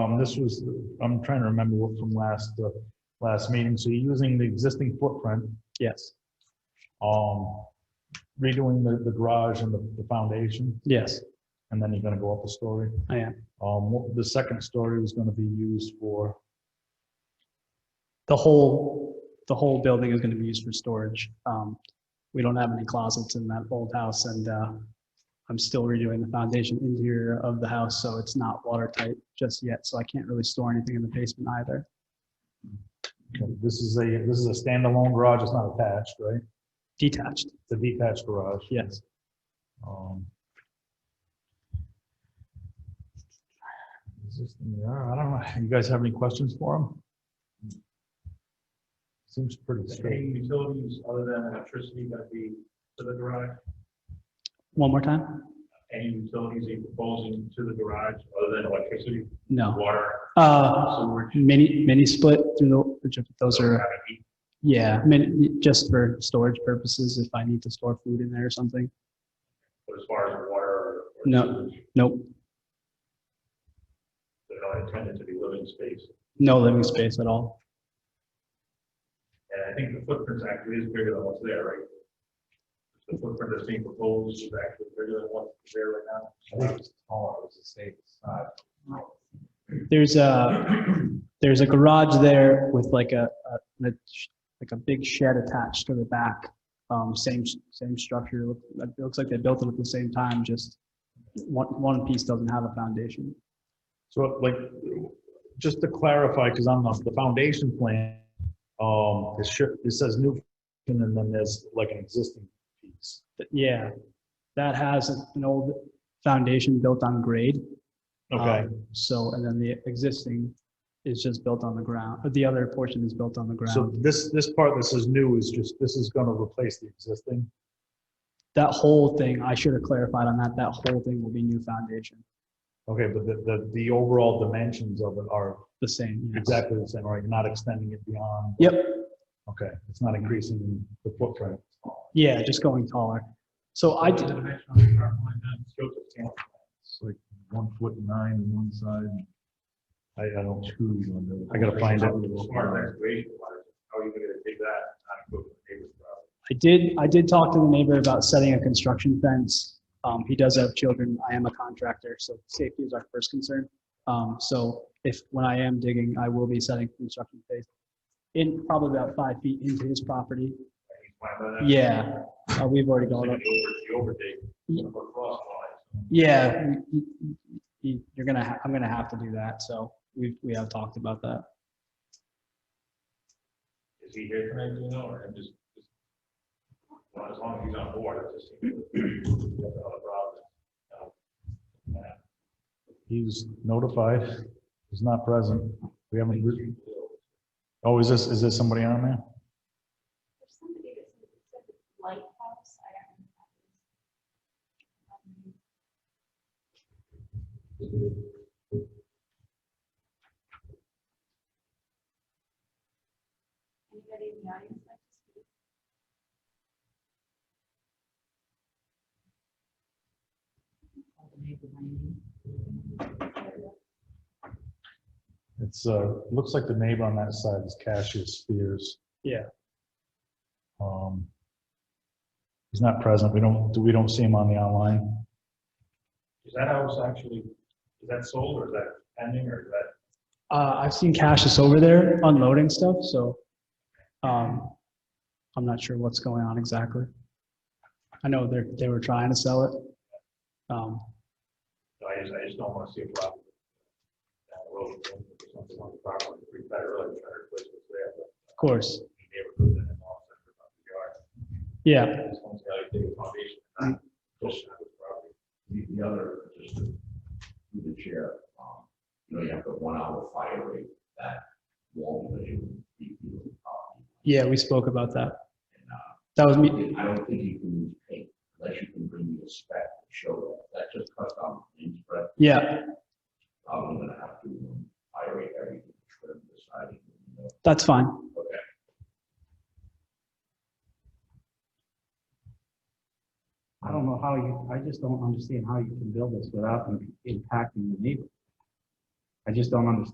Um, this was, I'm trying to remember what from last, uh, last meeting, so you're using the existing footprint, Yes, um, redoing the, the garage and the, the foundation, yes, and then you're gonna go up a story. I am. Um, what- the second story is gonna be used for, The whole, the whole building is going to be used for storage. Um, We don't have any closets in that old house and uh, I'm still redoing the foundation interior of the house, so it's not watertight just yet. So I can't really store anything in the basement either. this is a, this is a standalone garage, it's not attached, right? Detached, It's a detached garage. yes. Um, is this- yeah, I don't know, you guys have any questions for him? Seems pretty straight. Any utilities other than electricity gonna be to the garage? One more time? Any utilities are you proposing to the garage other than electricity, No. water, Uh, sewer? Mini, mini split through the, which of those so we are, have a heat yeah, mini- just for storage purposes, if I need to store food in there or something. But as far as water or? or No. sewage, Nope, They're not intended to be living space. no living space at all. And I think the footprint actually is bigger than what's there, right? The footprint that's being proposed is actually bigger than what's there right now. I think it's taller, it was the same size. There's a, there's a garage there with like a, a- a sh- like a big shed attached to the back. Um, same, same structure. Look- It looks like they built it at the same time, just one, one piece doesn't have a foundation. So like, just to clarify, because on the, the foundation plan, um, it sure, it says new, and then there's like an existing piece. But yeah, that has an old foundation built on grade. Okay, Um, So, and then the existing is just built on the ground, but the other portion is built on the so ground. this, this part that says new is just, this is gonna replace the existing. That whole thing, I should have clarified on that, that whole thing will be new foundation, Okay, but the, the, the overall dimensions of it are the same. yes. exactly the same, right? Not extending it beyond, Yep, okay, it's not increasing the footprint. yeah, just going taller. So I, What's d- the dimension of the property line then? Shows it's ten. It's like one foot nine on one side. I, I don't, I gotta find it. Smart excavation wise, how are you gonna take that? and not go to the neighbor's property? I did, I did talk to the neighbor about setting a construction fence. Um, he does have children. I am a contractor, so safety is our first concern. Um, so if, when I am digging, I will be setting construction phase in probably about five feet into his property. Can you plan that out? Yeah, uh, we've already It's gone like up. an over- The Yeah. overdate, or cross lines. Yeah, y- y- y- you're gonna, ha- I'm gonna have to do that, so we, we have talked about that. Is he here tonight, do you know, or I'm just? just- Well, as long as he's on board, it just. seems- that's another problem. Uh, He's notified, he's not present. We haven't, re- There's oh, is this, is this somebody on there? There's somebody that's in the lighthouse, I don't know. who that is. Um, Um, Anybody in the audience like to speak? It's, uh, looks like the neighbor on that side is Cassius Spears. Yeah. Um, he's not present, we don't, we don't see him on the online. Is that house actually, is that sold or is that pending or is that? Uh, I've seen Cassius over there unloading stuff, so, um, I'm not sure what's going on exactly. I know they're, they were trying to sell it. Um, I just, I just don't want to see a problem. Down the road, or something on the property, pretty bad earlier, trying to replace what's there, but of course, the neighborhood and the law center about the yard. yeah, I just want to tell you, the foundation, not just have the property. Mm. The, the other, just to, through the chair, um, you know, you have the one hour fire rate that won't let you beat you up. yeah, we spoke about that. And, uh, That was I me, mean, I don't think you can use paint unless you can bring me a spec to show that, that just cuts down the paint spread. yeah, Probably gonna have to um, fire rate everything, trim the siding, you know, that's fine. okay. I don't know how you, I just don't understand how you can build this without im- impacting the neighbor. I I just don't understand